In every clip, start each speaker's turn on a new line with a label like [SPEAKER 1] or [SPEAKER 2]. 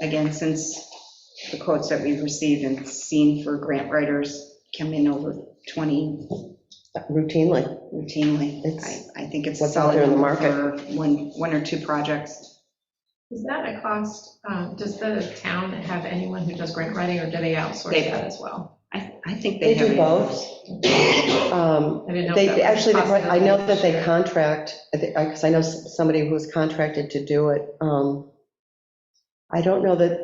[SPEAKER 1] again, since the quotes that we've received and seen for grant writers come in over 20
[SPEAKER 2] routinely.
[SPEAKER 1] routinely,
[SPEAKER 2] It's-
[SPEAKER 1] I, I think it's a
[SPEAKER 2] What's out
[SPEAKER 1] solid
[SPEAKER 2] there in the
[SPEAKER 1] number for one, one or two projects.
[SPEAKER 3] Is that a cost, um, does the town have anyone who does grant writing, or do they outsource
[SPEAKER 1] They-
[SPEAKER 3] that as well?
[SPEAKER 1] I, I think they
[SPEAKER 2] They
[SPEAKER 1] have.
[SPEAKER 2] do
[SPEAKER 1] a-
[SPEAKER 2] both. Um,
[SPEAKER 3] I didn't know. if that
[SPEAKER 2] They,
[SPEAKER 3] was
[SPEAKER 2] actually, they
[SPEAKER 3] costing
[SPEAKER 2] pro- I know
[SPEAKER 3] them
[SPEAKER 2] that they
[SPEAKER 3] this
[SPEAKER 2] contract, because I know s- somebody who's contracted to do it. Um, I don't know that,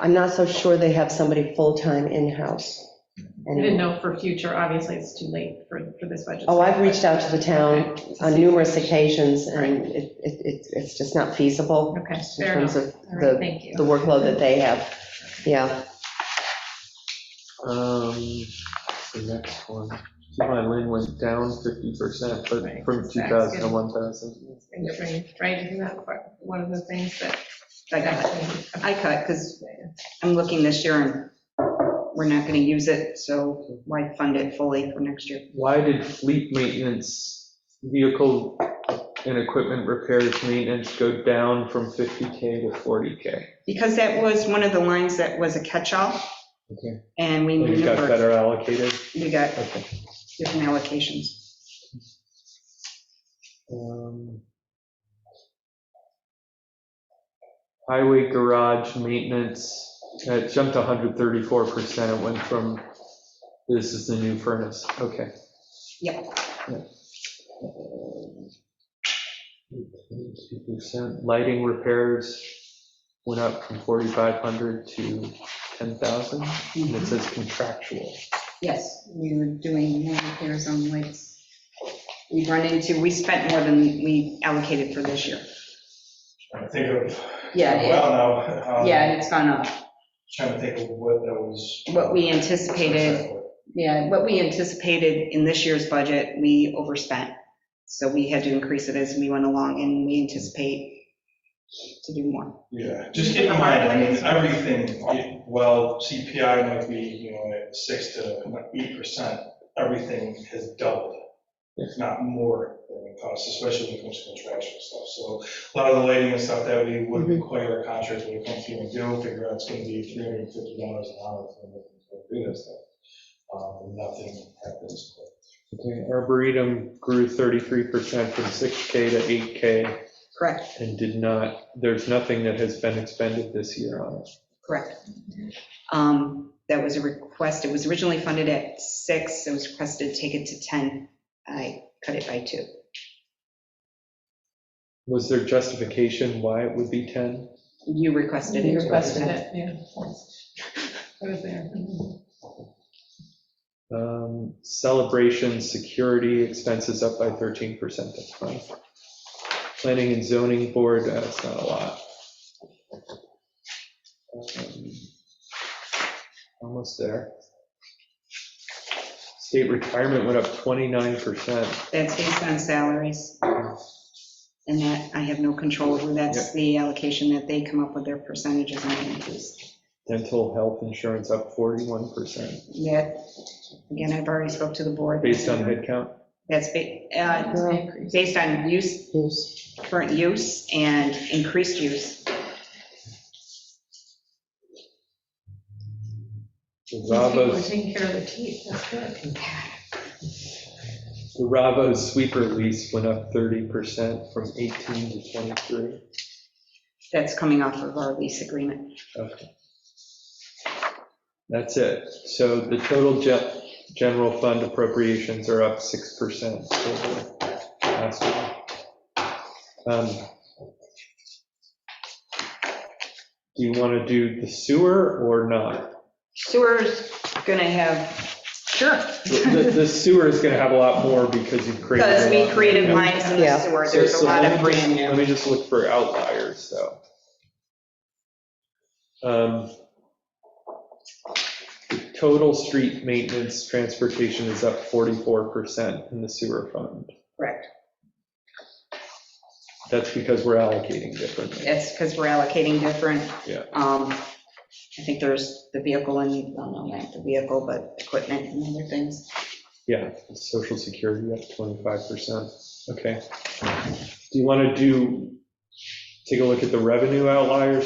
[SPEAKER 2] I'm not so sure they have somebody full-time in-house.
[SPEAKER 3] year. I Mm-hmm. didn't
[SPEAKER 2] anymore.
[SPEAKER 3] know for future, obviously, it's too late for, for this budget.
[SPEAKER 2] Oh, I've
[SPEAKER 3] cycle,
[SPEAKER 2] reached out to the town
[SPEAKER 3] Okay, to
[SPEAKER 2] on
[SPEAKER 3] see-
[SPEAKER 2] numerous occasions, and it, it, it- it's just not feasible
[SPEAKER 3] Okay,
[SPEAKER 2] in
[SPEAKER 3] fair
[SPEAKER 2] terms
[SPEAKER 3] enough.
[SPEAKER 2] of
[SPEAKER 3] All right,
[SPEAKER 2] the,
[SPEAKER 3] thank you.
[SPEAKER 2] the workload that they have. Yeah,
[SPEAKER 4] Um, the next one, my lane went down fifty percent, but
[SPEAKER 3] Right,
[SPEAKER 4] from
[SPEAKER 3] that's
[SPEAKER 4] two
[SPEAKER 3] good.
[SPEAKER 4] thousand to one thousand.
[SPEAKER 3] And you're bringing- Right, isn't that part- one of the things that?
[SPEAKER 1] I got it. I cut, because I'm looking this year and we're not going to use it, so why fund it fully for next year?
[SPEAKER 4] Why did fleet maintenance, vehicle and equipment repairs maintenance go down from fifty K to forty K?
[SPEAKER 1] Because that was one of the lines that was a catch-all,
[SPEAKER 4] Okay.
[SPEAKER 1] and we
[SPEAKER 4] You got
[SPEAKER 1] maneuvered,
[SPEAKER 4] better allocated?
[SPEAKER 1] we got
[SPEAKER 4] Okay.
[SPEAKER 1] different allocations.
[SPEAKER 4] Um, Highway garage maintenance, it jumped 134%, it went from, this is the new furnace, okay.
[SPEAKER 1] Yep.
[SPEAKER 4] Yeah. Two percent. Lighting repairs went up from 4,500 to 10,000, and it says contractual.
[SPEAKER 1] Yes, we were doing more repairs on lights. We've run into, we spent more than we allocated for this year.
[SPEAKER 5] Trying to think of,
[SPEAKER 1] Yeah,
[SPEAKER 5] well, now,
[SPEAKER 1] it-
[SPEAKER 5] um,
[SPEAKER 1] yeah, it's gone up.
[SPEAKER 5] trying to think of what that was.
[SPEAKER 1] What we anticipated, yeah, what we anticipated in this year's budget, we overspent. So we had to increase it as we went along, and we anticipate to do more.
[SPEAKER 5] Yeah, just keep in mind, I mean, everything, well, CPI might be, you know, at six to eight percent, everything has doubled, if not more than the cost, especially when it comes to contractual stuff. So a lot of the lighting and stuff that we would
[SPEAKER 2] Mhm.
[SPEAKER 5] require our contractors when it comes to even do, figure out it's gonna be three hundred and fifty dollars an hour for them to do that stuff. Um, nothing happens.
[SPEAKER 4] Okay, Arboretum grew 33% from 6K to 8K.
[SPEAKER 1] Correct,
[SPEAKER 4] and did not, there's nothing that has been expended this year on it.
[SPEAKER 1] correct. Um, That was a request, it was originally funded at six, it was requested to take it to 10. I cut it by two.
[SPEAKER 4] Was there justification why it would be 10?
[SPEAKER 1] You requested it.
[SPEAKER 2] You requested it.
[SPEAKER 3] Yeah. It was there.
[SPEAKER 4] Um, Celebration, security expenses up by 13%, that's fine. Planning and zoning board, uh, it's not a lot. Um, Almost there. State retirement went up 29%.
[SPEAKER 1] That's based on salaries. And that, I have no control over, that's the allocation that they come up with their percentages on increase.
[SPEAKER 4] Dental health insurance up 41%,
[SPEAKER 1] Yet, again, I've already spoke to the board.
[SPEAKER 4] based on headcount.
[SPEAKER 1] That's ba- uh,
[SPEAKER 2] Well,
[SPEAKER 3] Increase.
[SPEAKER 1] based on use,
[SPEAKER 2] yes.
[SPEAKER 1] current use and increased use.
[SPEAKER 3] These people are
[SPEAKER 4] Zavos
[SPEAKER 3] taking care of their teeth, that's good.
[SPEAKER 4] The Ravo sweeper lease went up 30% from 18 to 23.
[SPEAKER 1] That's coming off of our lease agreement.
[SPEAKER 4] Okay. That's it. So the total ge- general fund appropriations are up 6% over last year. Um, Do you want to do the sewer or not?
[SPEAKER 1] Sewer's gonna have, sure,
[SPEAKER 4] The the sewer is going to have a lot more because you've created. a
[SPEAKER 1] because we
[SPEAKER 4] lot.
[SPEAKER 1] created lines in the
[SPEAKER 2] Yeah.
[SPEAKER 1] sewer, there's a
[SPEAKER 4] So- so
[SPEAKER 1] lot
[SPEAKER 4] let
[SPEAKER 1] of
[SPEAKER 4] me
[SPEAKER 1] brand
[SPEAKER 4] just- Let
[SPEAKER 1] new.
[SPEAKER 4] me just look for outliers, though. Um, the Total street maintenance transportation is up 44% in the sewer fund.
[SPEAKER 1] Correct,
[SPEAKER 4] That's because we're allocating differently.
[SPEAKER 1] that's because we're allocating different.
[SPEAKER 4] Yeah.
[SPEAKER 1] Um, I think there's the vehicle and, well, no, not the vehicle, but equipment and other things.
[SPEAKER 4] Yeah, social security up 25%. Okay. Do you want to do, take a look at the revenue outliers